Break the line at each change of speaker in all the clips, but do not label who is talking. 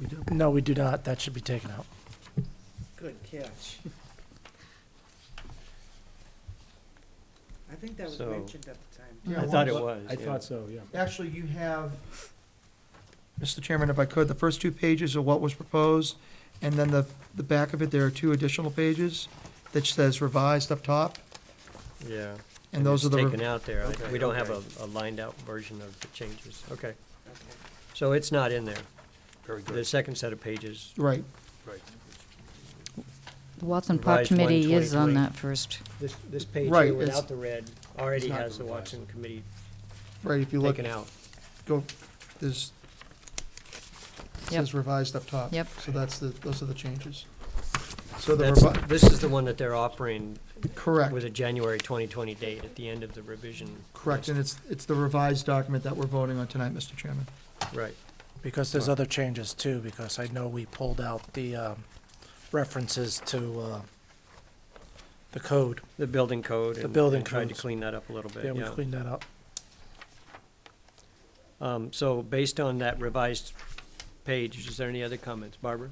We do.
No, we do not. That should be taken out.
Good catch. I think that was
So-
mentioned at the time.
Yeah,
I thought it
well,
was.
I
yeah.
thought so, yeah.
Actually, you have, Mr. Chairman, if I could, the first two pages are what was proposed, and then the, the back of it, there are two additional pages that says revised up top,
Yeah.
and those are
it's
the,
Taken
re-
out there. I-
Okay,
We don't have a, a lined out version of the changes. Okay.
Okay.
So it's not in there.
Very
The second set of pages,
right.
Right.
The Watson Park
Revised one,
Committee is on
2020.
that first.
this, this page
Right,
here
it's-
without the red already
it's not
has the
revised.
Watson committee
Right, if you look,
taken out.
go, there's, it
Yep.
says revised up top.
Yep.
So that's the, those are the changes. So the,
That's,
revi-
this is the one that they're offering
correct,
with a January twenty twenty date at the end of the revision.
correct, and it's, it's the revised document that we're voting on tonight, Mr. Chairman.
Right.
Because there's other changes too, because I know we pulled out the um, references to uh, the code.
The building code.
The
and-
building
and Tried to
codes.
clean that up a little bit,
Yeah, we
yeah.
cleaned that up.
Um, so based on that revised page, is there any other comments? Barbara?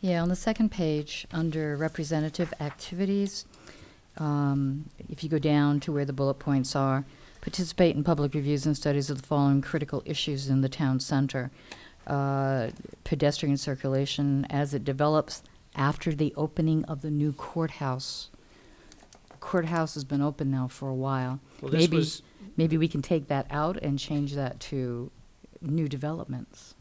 Yeah, on the second page, under representative activities, um, if you go down to where the bullet points are, participate in public reviews and studies of the following critical issues in the town center. Uh, pedestrian circulation as it develops after the opening of the new courthouse. Courthouse has been open now for a while.
Well, this
Maybe-
was-
Maybe we can take that out and change that to new developments.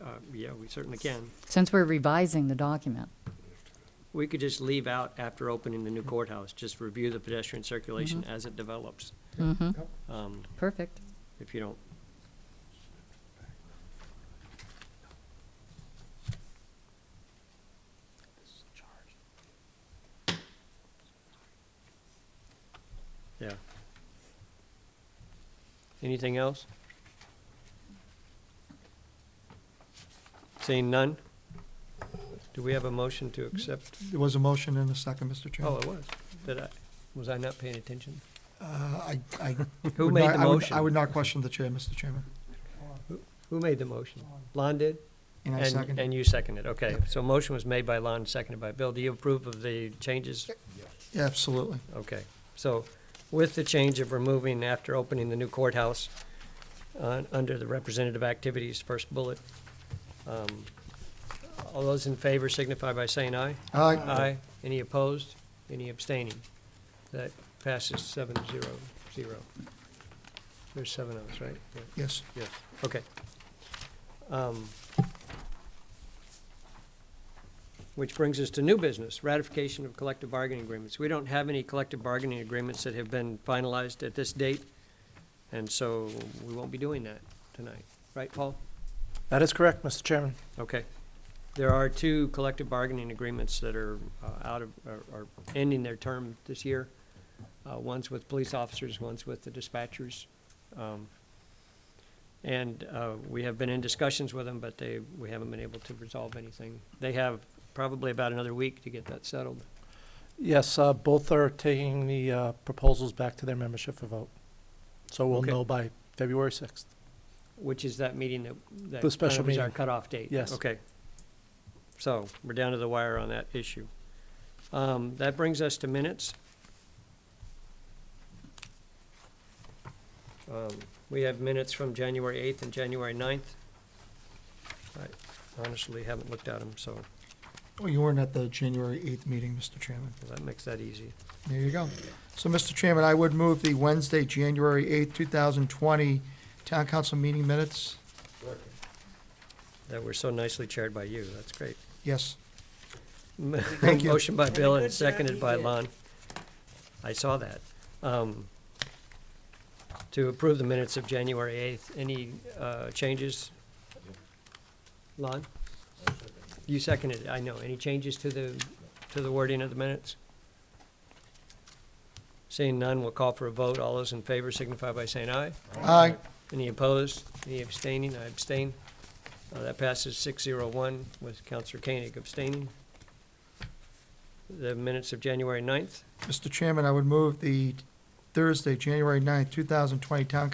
Uh, yeah, we certainly can.
Since we're revising the document.
We could just leave out after opening the new courthouse, just review the pedestrian circulation as it develops,
Mm-hmm,
um,
perfect.
if you don't. Yeah. Anything else? Seeing none? Do we have a motion to accept?
There was a motion and a second, Mr.
Oh,
Chairman.
it was. Did I, was I not paying attention?
Uh, I, I.
Who
would
made
not-
the
I would-
motion?
I would not question the chair, Mr. Chairman.
Who made the motion? Lon did?
And I
And,
second.
and you seconded, okay.
Yep.
So motion was made by Lon, seconded by Bill. Do you approve of the changes?
Yeah, Absolutely.
Okay. So with the change of removing after opening the new courthouse, uh, under the representative activities, first bullet, um, all those in favor signify by saying aye.
Aye.
Any opposed? Any abstaining? That passes seven zero zero. There's seven of us, right? Yeah.
Yes.
Yes, okay. Um, Which brings us to new business, ratification of collective bargaining agreements. We don't have any collective bargaining agreements that have been finalized at this date, and so we won't be doing that tonight. Right, Paul?
That is correct, Mr. Chairman.
Okay. There are two collective bargaining agreements that are uh, out of, are are ending their term this year. Uh, One's with police officers, one's with the dispatchers. Um, And uh, we have been in discussions with them, but they, we haven't been able to resolve anything. They have probably about another week to get that settled.
Yes, uh, both are taking the uh, proposals back to their membership for vote. So we'll
Okay.
know by February 6th.
Which is that meeting that, that
The special
kind of is our
meeting.
cutoff date?
Yes.
Okay. So, we're down to the wire on that issue. Um, that brings us to minutes. Um, we have minutes from January eighth and January 9th. I honestly haven't looked at them, so
Oh, you weren't at the January 8th meeting, Mr. Chairman.
that makes that easy.
There you go. So, Mr. Chairman, I would move the Wednesday, January 8th, 2020 Town Council meeting minutes.
That were so nicely chaired by you, that's great.
Yes.
Thank
you.
Motion by
Had a
Bill
good
and
job
seconded
he
by
did.
Lon. I saw that. Um, To approve the minutes of January 8th, any uh, changes? Lon? You seconded, it, I know. Any changes to the, to the wording of the minutes? Seeing none, we'll call for a vote. All those in favor signify by saying aye.
Aye.
Any opposed? Any abstaining? I abstain. Uh, That passes six zero one with Counselor Koenig abstaining. The minutes of January 9th.
Mr. Chairman, I would move the Thursday, January 9th, 2020 Town